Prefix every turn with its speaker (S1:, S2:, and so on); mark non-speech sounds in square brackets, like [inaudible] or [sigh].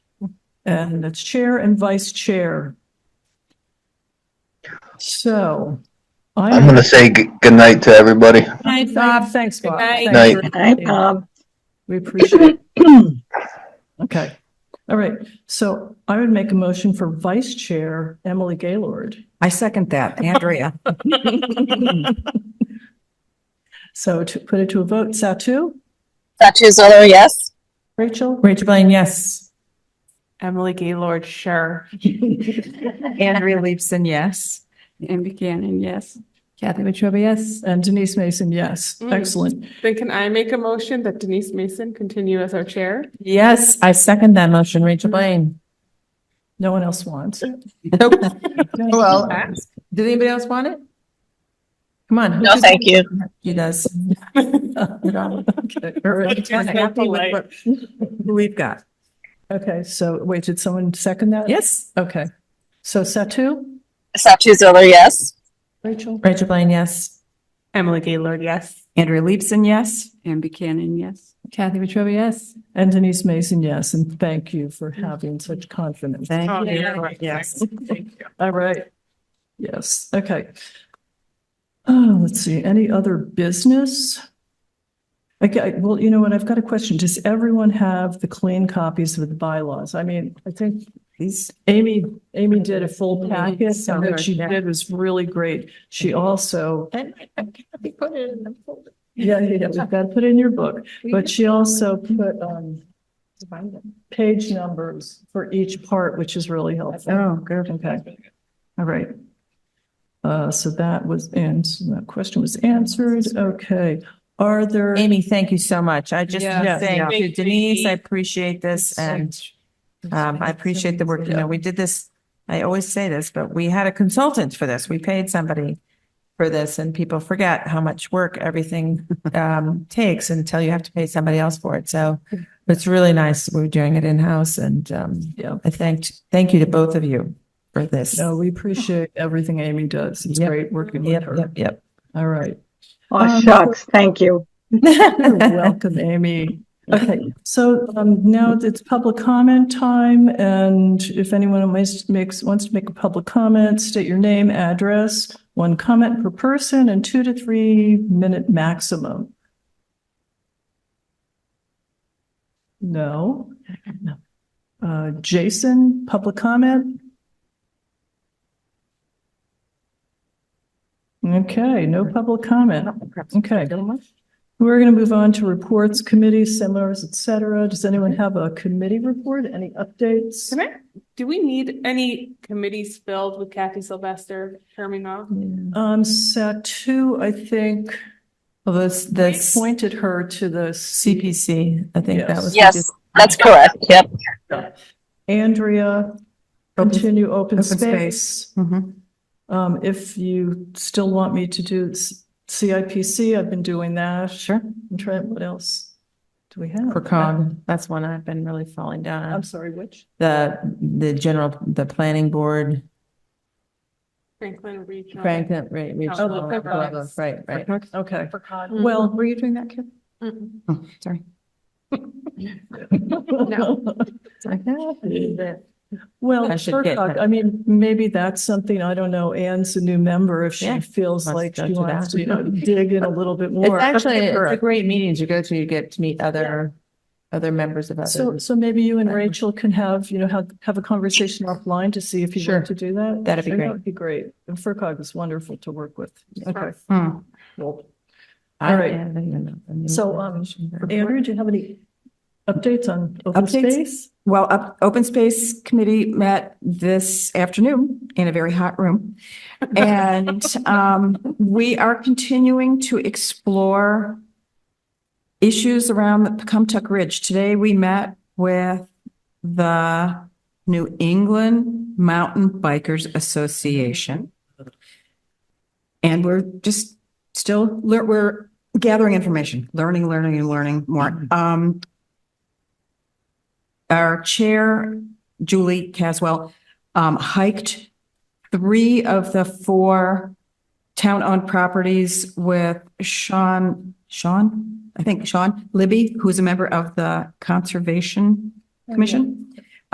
S1: And that's chair and vice chair. So.
S2: I'm gonna say g- good night to everybody.
S3: Night,
S1: Bob,
S3: Bob.
S1: thanks, Bob.
S3: Good
S1: Thanks.
S2: night.
S4: Hi, Bob.
S1: We appreciate
S4: [clears throat]
S1: it. Okay, all right. So I would make a motion for vice chair, Emily Gaylord.
S3: I second that, Andrea.
S1: [laughs] So to put it to a vote, Satu,
S4: Satu Zolo, yes.
S1: Rachel,
S3: Rachel Blaine, yes.
S5: Emily Gaylord, sure.
S3: Andrea Leibson, yes.
S5: Anne Buchanan, yes. Kathy Wetruba, yes.
S1: and Denise Mason, yes.
S5: Mm.
S1: Excellent.
S5: Then can I make a motion that Denise Mason continue as our chair?
S3: Yes, I second that motion, Rachel Blaine.
S1: No one else wants it.
S3: Well, did anybody else want it? Come on.
S4: No, thank you.
S3: She
S4: [laughs]
S3: does.
S1: Okay, all right.
S3: Happy with what We've got.
S1: Okay, so wait, did someone second that?
S3: Yes.
S1: Okay. So Satu,
S4: Satu Zolo, yes.
S1: Rachel,
S3: Rachel Blaine, yes.
S5: Emily Gaylord, yes.
S3: Andrea Leibson, yes.
S5: Anne Buchanan, yes. Kathy Wetruba, yes.
S1: and Denise Mason, yes. And thank you for having such confidence.
S3: Thank
S5: you.
S3: you. Yes.
S1: All right. Yes, okay. Oh, let's see, any other business? Okay, well, you know what, I've got a question. Does everyone have the clean copies of the bylaws? I mean, I think
S3: Please.
S1: Amy, Amy did a full
S3: Yeah,
S1: packet,
S3: so
S1: and what
S3: good,
S1: she
S3: yeah.
S1: did was really great. She also,
S3: Put it in the folder.
S1: yeah, yeah, yeah, we've got to put it in your book, but she also put, um, page numbers for each part, which is really helpful.
S3: Oh, good.
S1: Okay, all right. Uh, so that was, and that question was answered. Okay, are there?
S3: Amy, thank you so much. I just
S5: Yeah.
S3: want to thank
S5: Yeah.
S3: you. Denise, I appreciate this and um, I appreciate the work. You know, we did this, I always say this, but we had a consultant for this. We paid somebody for this and people forget how much work everything um, takes until you have to pay somebody else for it. So it's really nice. We're doing it in-house and um,
S1: Yeah.
S3: I thanked, thank you to both of you for this.
S1: No, we appreciate everything Amy does. It's
S3: Yep.
S1: great working with
S3: Yep,
S1: her.
S3: yep, yep.
S1: All right.
S4: Oh,
S1: Um,
S4: shucks, thank you.
S1: [laughs] You're welcome, Amy.
S3: [laughs]
S1: Okay, so um, now it's public comment time, and if anyone makes, makes, wants to make a public comment, state your name, address, one comment per person, and two to three minute maximum. No? Uh, Jason, public comment? Okay, no public comment. Okay. We're going to move on to reports, committees, seminars, et cetera. Does anyone have a committee report? Any updates?
S5: Can I, do we need any committees filled with Kathy Sylvester terming off?
S1: Um, Satu, I think,
S3: Although the
S1: appointed her to the CP.
S3: CPC, I think that
S1: Yes.
S3: was.
S4: Yes, that's correct. Yep.
S1: Andrea,
S3: Open-
S1: continue open
S3: open
S1: space.
S3: Mhm.
S1: Um, if you still want me to do s- CIPC, I've been doing that. Sure. And Trent, what else do we have?
S3: Procon, that's one I've been really falling down on.
S1: I'm sorry, which?
S3: the, the general, the planning board,
S5: Franklin Regional.
S3: Franklin, right,
S5: Oh, the
S3: regional, blah, blah, blah, right, right.
S1: Okay.
S5: Franklin.
S1: Well,
S3: Mm-hmm. were you doing
S1: [laughs]
S3: that, Kim?
S5: Mm-mm.
S3: Oh, sorry.
S1: No.
S3: [laughs] Well,
S1: Well,
S3: I should get
S1: Turcock,
S3: that.
S1: I mean, maybe that's something, I don't know, Anne's a new member, if she
S3: Yeah,
S1: feels
S3: let's
S1: like
S3: go
S1: she
S3: to
S1: wants
S3: that.
S1: to, you know, dig in a little bit
S3: It's
S1: more.
S3: actually, it's a
S1: Correct.
S3: great meeting to go to, you get to meet other, other members of
S1: So,
S3: others.
S1: so maybe you and Rachel can have, you know, have, have a conversation offline to see if you
S3: Sure.
S1: want to do that.
S3: That'd
S1: I
S3: be
S1: think
S3: great.
S1: That would be great. And FERCog is wonderful to work with. Okay.
S3: Hmm.
S1: Cool.
S3: I-
S1: All right.
S3: I don't even know the name
S1: So,
S3: of
S1: um,
S3: it.
S1: Andrew, do you have any updates on open
S6: Updates?
S1: space?
S6: Well, up, Open Space Committee met this afternoon in a very hot room. And, um, we are continuing to explore issues around the Pecumtuck Ridge. Today, we met with the New England Mountain Bikers Association. And we're just still, lear- we're gathering information, learning, learning, and learning more. Um, our chair, Julie Caswell, um, hiked three of the four town-owned properties with Sean, Sean, I think Sean Libby, who's a member of the Conservation Commission.